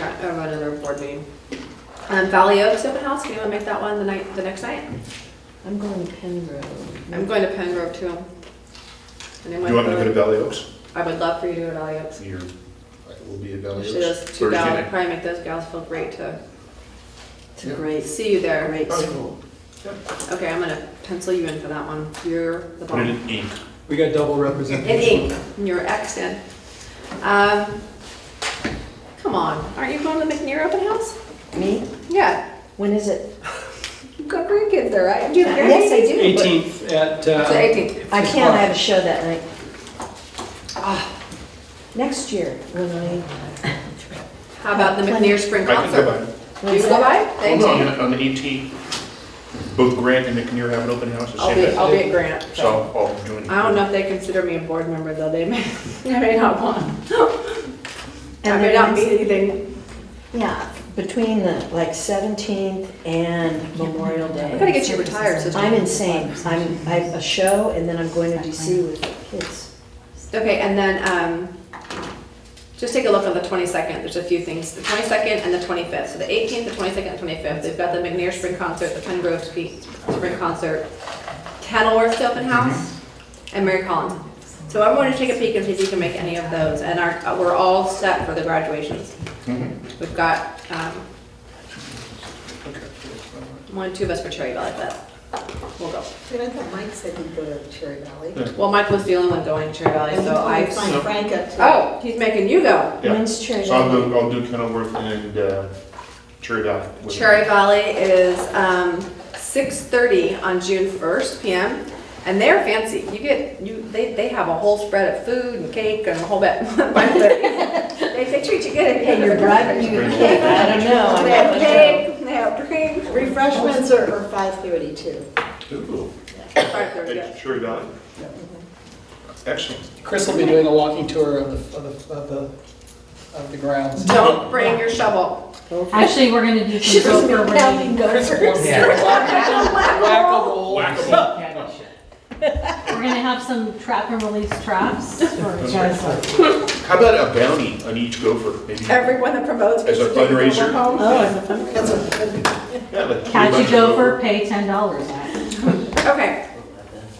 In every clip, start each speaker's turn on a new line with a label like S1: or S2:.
S1: at of another board meeting. Um, Valley Oaks open house, do you wanna make that one the night, the next night?
S2: I'm going to Pengrove.
S1: I'm going to Pen Grove too. And then
S3: You want me to go to
S1: Whitebird.
S3: Valley Oaks?
S1: I would love for you to go to Valley Oaks.
S3: You're, I will be at Valley
S1: Actually,
S3: Oaks
S1: those two
S3: Thursday
S1: gals,
S3: night.
S1: probably make those gals feel great to
S2: It's a great,
S1: see you there.
S3: Oh,
S2: great school.
S1: Okay, I'm gonna pencil you in for that one. You're the
S3: Put it
S1: bomb.
S3: in ink.
S4: We got double
S1: In
S4: representation.
S1: ink, you're Xed in. Um, come on, aren't you going to the McNear open house?
S2: Me?
S1: Yeah,
S2: When is it?
S1: you've got grandkids there, right? Do you have
S2: Yes, I
S1: grandkids?
S2: do. but-
S4: 18th at, uh,
S1: It's the 18th.
S2: I can't, I have a show that night. Ah, Next year, when I.
S1: How about the McNear Spring
S3: I can go
S1: Concert?
S3: by.
S1: Do you
S2: when's
S1: go
S2: that?
S1: by? The
S3: Well, no,
S1: 18th?
S3: on the- on the 18th, both Grant and McNear have an open house the
S1: I'll
S3: same
S1: be,
S3: day.
S1: I'll be at Grant.
S3: So I'll- I'll join you.
S1: I don't know if they consider me a board member though, they may, they may not want. I
S2: And
S1: may
S2: then
S1: not be
S2: next-
S1: anything.
S2: Yeah, between the, like, 17th and Memorial Day.
S1: I gotta get you retired, sister.
S2: I'm insane. I'm, I have a show and then I'm going to DC with the kids.
S1: Okay, and then, um, just take a look on the twenty-second, there's a few things, the twenty-second and the twenty-fifth, so the eighteenth, the twenty-second, and twenty-fifth, they've got the McNair Spring Concert, the Pine Grove Spe- Spring Concert, Kenilworth's Open House, and Mary Collins. So I'm going to take a peek and see if you can make any of those, and our, uh, we're all set for the graduations.
S3: Mhm.
S1: We've got, um,
S3: Okay.
S1: one, two of us for Cherry Valley, but we'll go.
S5: Wait, I thought Mike said he'd go to Cherry Valley.
S3: Yeah.
S1: Well, Mike was the only one going to Cherry Valley,
S5: And
S1: so I,
S5: he'd find Frank up to.
S1: oh, he's making you go.
S3: Yeah.
S2: When's Cherry
S3: So I'll
S2: Valley?
S3: do, I'll do Kenilworth and uh, Cherry Valley. with-
S1: Cherry Valley is um, 6:30 on June 1st PM, and they're fancy. You get, you, they, they have a whole spread of food and cake and a whole bit. They, they treat you good.
S2: Hey, you're bribing me with cake. I don't know. I'm
S1: They
S2: not
S1: have
S2: sure.
S1: cake, they have drinks.
S5: Refreshments are are 5:30 too.
S3: Ooh.
S1: Alright, there we go.
S3: At Cherry Valley? Excellent.
S4: Chris will be doing a walking tour of the, of the, of the, of the grounds.
S1: Don't bring your shovel.
S6: Actually, we're gonna do
S2: She's
S6: some gopher
S2: counting
S6: running.
S4: Chris will
S2: gophers.
S4: be doing whack-a-mole.
S6: We're gonna have some trap and release traps for guys.
S3: How about a bounty on each gopher? Maybe
S1: Everyone that promotes.
S3: As a
S1: gets to take
S3: fundraiser.
S1: over home.
S2: Oh, it's a fun
S5: That's a,
S3: Yeah, like three
S6: Catch
S3: bucks
S6: a gopher, pay ten dollars.
S1: Okay.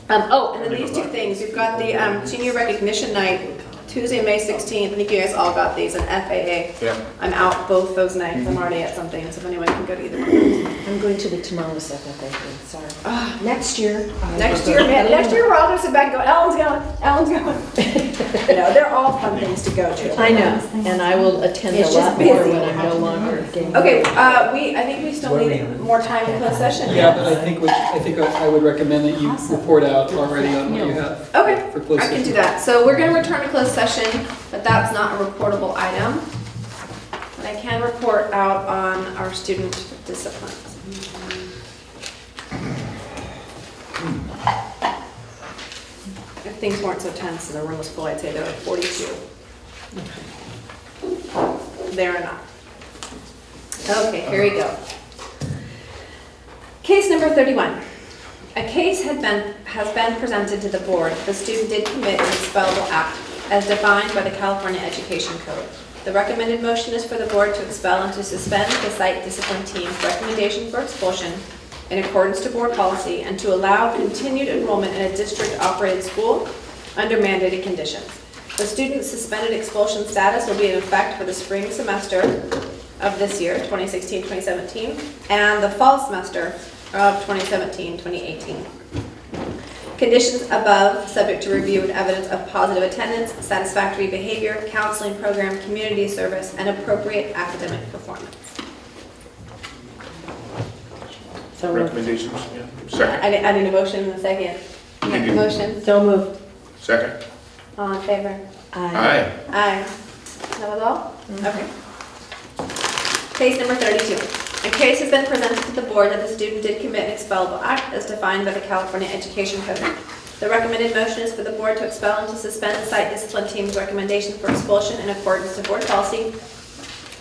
S1: Um, oh, and then these two things, you've got the, um, senior recognition night, Tuesday, May sixteenth, I think you guys all got these, and FAA.
S3: Yeah.
S1: I'm out both those nights, I'm already at something, so if anyone can go to either one.
S2: I'm going to the tomorrow second, I think, sorry. Ah, Next year. I
S1: Next
S2: will
S1: year,
S2: go.
S1: man, next year, we're all gonna sit back and go, Ellen's going, Ellen's going. No, they're all fun things to go to.
S2: I know, and I will attend a
S1: It's just
S2: lot more
S1: busy.
S2: when I'm no longer getting.
S1: Okay, uh, we, I think we still need more time in closed session.
S4: Yeah, but I think, we- I think I I would recommend that you report out already on what you have.
S1: Okay,
S4: for closed
S1: I can do
S4: session.
S1: that. So we're gonna return to closed session, but that's not a reportable item. But I can report out on our student discipline. If things weren't so tense and the room was full, I'd say there were forty-two. There are not. Okay, here we go. Case number thirty-one. A case had been, has been presented to the board. The student did commit an expellable act as defined by the California Education Code. The recommended motion is for the board to expel and to suspend the site discipline team's recommendation for expulsion in accordance to board policy and to allow continued enrollment in a district-operated school under mandated conditions. The student's suspended expulsion status will be in effect for the spring semester of this year, 2016, 2017, and the fall semester of 2017, 2018. Conditions above, subject to review and evidence of positive attendance, satisfactory behavior, counseling program, community service, and appropriate academic performance.
S2: So moved.
S3: Recommendations, yeah. Second,
S1: I need, I need a motion in a second.
S3: You do.
S1: Motion,
S2: So moved.
S3: second.
S1: all in favor?
S2: I
S3: Aye.
S1: Aye. That was all? Okay. Case number thirty-two. A case has been presented to the board that the student did commit an expellable act as defined by the California Education Code. The recommended motion is for the board to expel and to suspend the site discipline team's recommendation for expulsion in accordance to board policy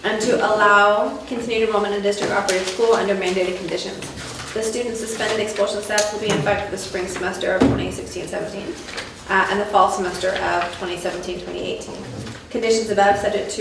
S1: and to allow continued enrollment in district-operated school under mandated conditions. The student's suspended expulsion status will be in effect for the spring semester of 2016-17 uh, and the fall semester of 2017-2018. Conditions above subject to